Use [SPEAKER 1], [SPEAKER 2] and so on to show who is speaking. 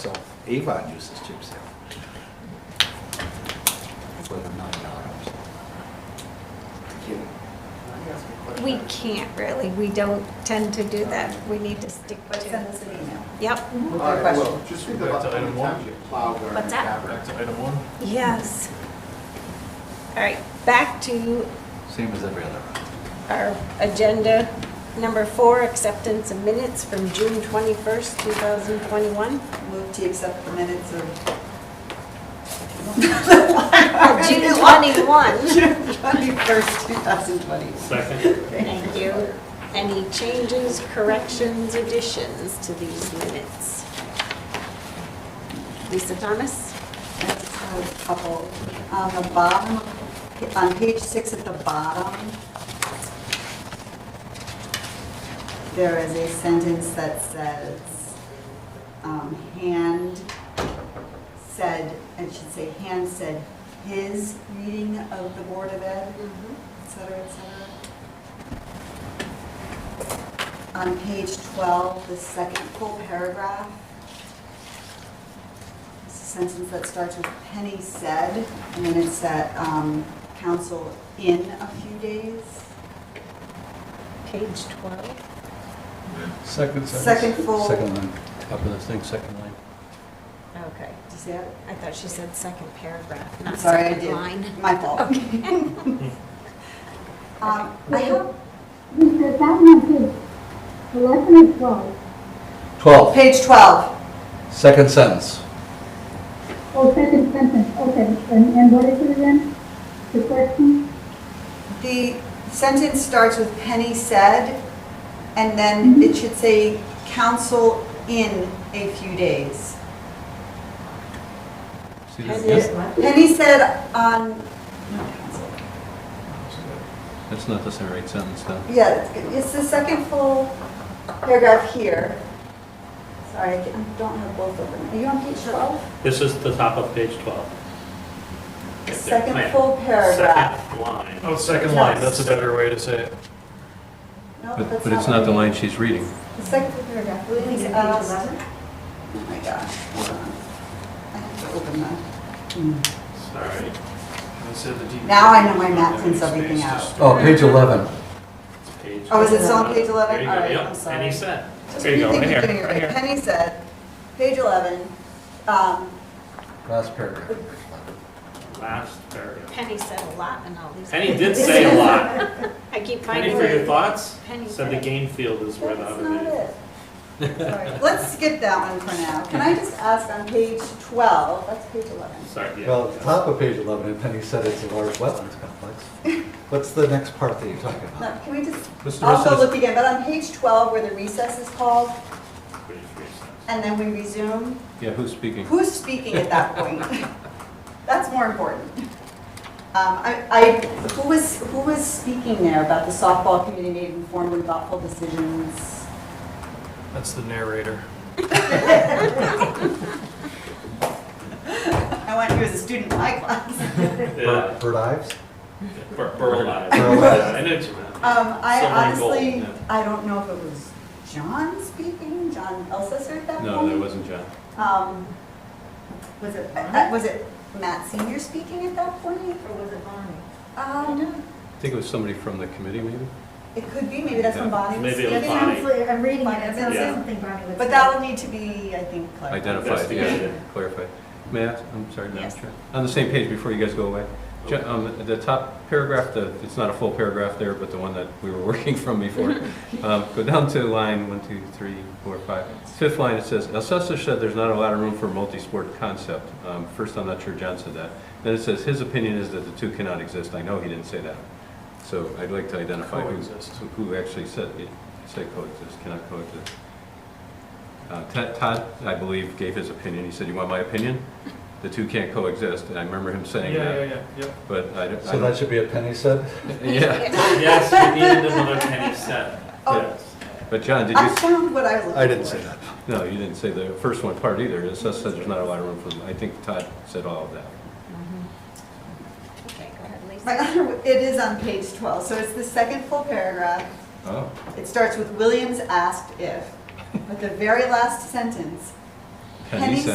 [SPEAKER 1] Avon uses chip seal. For the nine dollars.
[SPEAKER 2] We can't really, we don't tend to do that. We need to stick
[SPEAKER 3] But send
[SPEAKER 2] to,
[SPEAKER 3] us an email.
[SPEAKER 2] yep,
[SPEAKER 4] All
[SPEAKER 3] With your
[SPEAKER 4] right,
[SPEAKER 3] question.
[SPEAKER 4] well, just think
[SPEAKER 5] Back
[SPEAKER 4] about how
[SPEAKER 5] to item
[SPEAKER 4] many
[SPEAKER 5] one.
[SPEAKER 4] times you plow during
[SPEAKER 2] What's that?
[SPEAKER 4] fabric.
[SPEAKER 5] Back to item one.
[SPEAKER 2] yes. All right, back to
[SPEAKER 1] Same as every other round.
[SPEAKER 2] our agenda, number four, acceptance of minutes from June 21st, 2021.
[SPEAKER 3] Move to accept the minutes of
[SPEAKER 2] Oh, June 21,
[SPEAKER 3] June 21st, 2020.
[SPEAKER 5] Second.
[SPEAKER 2] thank you. Any changes, corrections, additions to these minutes? Lisa Thomas?
[SPEAKER 3] That's a couple. On the bottom, on page six at the bottom, there is a sentence that says, um, hand said, it should say, hand said his reading of the Board of Ed,
[SPEAKER 2] Mm-hmm.
[SPEAKER 3] et cetera, et cetera. On page 12, the second full paragraph, it's a sentence that starts with Penny said, and then it's at um, council in a few days.
[SPEAKER 2] Page 12.
[SPEAKER 6] Second
[SPEAKER 3] Second full,
[SPEAKER 6] Second
[SPEAKER 3] did
[SPEAKER 6] line, top of the thing, second line.
[SPEAKER 2] Okay.
[SPEAKER 3] you see it?
[SPEAKER 2] I thought she said second paragraph,
[SPEAKER 3] I'm
[SPEAKER 2] not
[SPEAKER 3] sorry, I
[SPEAKER 2] second
[SPEAKER 3] did.
[SPEAKER 2] line.
[SPEAKER 3] My fault. Um, I have,
[SPEAKER 7] Lisa, that one is eleven and twelve.
[SPEAKER 6] Twelve,
[SPEAKER 3] page 12,
[SPEAKER 6] second sentence.
[SPEAKER 7] Oh, second sentence, okay, and, and what is it again? The question?
[SPEAKER 3] the sentence starts with Penny said, and then it should say council in a few days.
[SPEAKER 6] See that
[SPEAKER 2] Penny.
[SPEAKER 6] again?
[SPEAKER 3] Penny said on, no, council.
[SPEAKER 6] That's not the right sentence, though.
[SPEAKER 3] Yeah, it's the second full paragraph here. Sorry, I can't- I don't have both of them. Are you on page 12?
[SPEAKER 8] This is the top of page 12.
[SPEAKER 3] The
[SPEAKER 8] Right there,
[SPEAKER 3] Second
[SPEAKER 8] plan.
[SPEAKER 3] full paragraph.
[SPEAKER 8] Second line.
[SPEAKER 5] Oh, second line, that's a better way to say it.
[SPEAKER 3] No,
[SPEAKER 6] But,
[SPEAKER 3] that's
[SPEAKER 6] but it's not the
[SPEAKER 3] right.
[SPEAKER 6] line she's reading.
[SPEAKER 3] The second full paragraph. Please, uh, Oh my gosh, hold on. I have to open that.
[SPEAKER 8] Sorry.
[SPEAKER 5] I said the D-
[SPEAKER 3] Now I know my map prints
[SPEAKER 5] Space
[SPEAKER 3] everything
[SPEAKER 5] to
[SPEAKER 3] out.
[SPEAKER 5] store.
[SPEAKER 6] Oh, page eleven.
[SPEAKER 8] It's page
[SPEAKER 3] Oh, is it still on page 11?
[SPEAKER 8] There you go,
[SPEAKER 3] All right,
[SPEAKER 8] yep,
[SPEAKER 3] I'm sorry.
[SPEAKER 8] And he said,
[SPEAKER 3] Just
[SPEAKER 8] there you go,
[SPEAKER 3] rethinking
[SPEAKER 8] right here,
[SPEAKER 3] doing it
[SPEAKER 8] right here.
[SPEAKER 3] Penny said, page 11, um,
[SPEAKER 6] Last paragraph.
[SPEAKER 3] Oh.
[SPEAKER 8] Last paragraph.
[SPEAKER 2] Penny said a lot in all these.
[SPEAKER 8] Penny did say a lot.
[SPEAKER 2] I keep
[SPEAKER 8] Penny,
[SPEAKER 2] finding
[SPEAKER 8] for your
[SPEAKER 2] her.
[SPEAKER 8] thoughts,
[SPEAKER 2] Penny
[SPEAKER 8] said the
[SPEAKER 2] said-
[SPEAKER 8] game field is where the
[SPEAKER 3] That's
[SPEAKER 8] other
[SPEAKER 3] not
[SPEAKER 8] day.
[SPEAKER 3] it. Sorry. Let's skip that one for now. Can I just ask on page 12, that's page 11.
[SPEAKER 8] Sorry, yeah.
[SPEAKER 1] Well, at the top of page 11, and Penny said it's a large wetlands complex. What's the next part that you're talking about?
[SPEAKER 3] No, Can we just,
[SPEAKER 6] What's the
[SPEAKER 3] I'll
[SPEAKER 6] rest
[SPEAKER 3] go
[SPEAKER 6] of
[SPEAKER 3] look
[SPEAKER 6] this?
[SPEAKER 3] again, but on page 12 where the recess is called
[SPEAKER 8] Page three.
[SPEAKER 3] and then we resume,
[SPEAKER 6] Yeah, who's speaking?
[SPEAKER 3] who's speaking at that point? That's more important. Um, I, I- who was, who was speaking there about the softball committee made informed and thoughtful decisions?
[SPEAKER 5] That's the narrator.
[SPEAKER 3] I want you as a student in my class.
[SPEAKER 8] Yeah,
[SPEAKER 1] Bird Bird Ives?
[SPEAKER 8] Bur- Burl Ives.
[SPEAKER 1] Burl Ives.
[SPEAKER 8] I know what you meant.
[SPEAKER 3] Um, I
[SPEAKER 8] Someone
[SPEAKER 3] honestly,
[SPEAKER 8] gold, yeah.
[SPEAKER 3] I don't know if it was John speaking, John Elsesser at that point?
[SPEAKER 6] No, that wasn't John.
[SPEAKER 3] Um, was it, uh, was it Matt Senior speaking at that point, or was it Bonnie? Um,
[SPEAKER 6] I think it was somebody from the committee, maybe?
[SPEAKER 3] it could be, maybe that's when Bonnie was
[SPEAKER 8] Maybe it
[SPEAKER 3] speaking.
[SPEAKER 8] was Bonnie.
[SPEAKER 7] I'm reading
[SPEAKER 3] it. It's gonna
[SPEAKER 8] say Yeah.
[SPEAKER 7] something Bonnie would
[SPEAKER 3] But that'll need to be, I think, clarified.
[SPEAKER 6] Identified, yeah,
[SPEAKER 8] Investigated.
[SPEAKER 6] clarified. May I, ask- I'm sorry, Madam
[SPEAKER 2] Yes.
[SPEAKER 6] Chair. On the same page, before you guys go away, Ju- um, the top paragraph, the, it's not a full paragraph there, but the one that we were working from before. Um, Go down to line one, two, three, four, five. Fifth line, it says, "Assessor said there's not a lot of room for multi-sport concept." Um, First, I'm not sure John said that. Then it says, "His opinion is that the two cannot exist." I know he didn't say that. So I'd like to identify who,
[SPEAKER 5] Coexist.
[SPEAKER 6] who actually said, it. said coexist, cannot coexist. Uh, Ted- Todd, I believe, gave his opinion. He said, "You want my opinion? The two can't coexist." And I remember him
[SPEAKER 5] Yeah,
[SPEAKER 6] saying
[SPEAKER 5] yeah,
[SPEAKER 6] that,
[SPEAKER 5] yeah, yep.
[SPEAKER 6] but I don't. I
[SPEAKER 1] So that
[SPEAKER 6] don't-
[SPEAKER 1] should be a Penny said?
[SPEAKER 6] Yeah,
[SPEAKER 8] Yes, we needed another Penny said.
[SPEAKER 3] Oh.
[SPEAKER 8] Yes.
[SPEAKER 6] but John, did you?
[SPEAKER 3] I found what I was looking for.
[SPEAKER 1] I didn't say that.
[SPEAKER 6] No, you didn't say the first one part either. It says that there's not a lot of room for them. I think Todd said all of that.
[SPEAKER 2] Okay, go ahead,
[SPEAKER 3] My
[SPEAKER 2] Lisa.
[SPEAKER 3] other, it is on page 12, so it's the second full paragraph.
[SPEAKER 6] Oh.
[SPEAKER 3] It starts with Williams asked if, but the very last sentence, Penny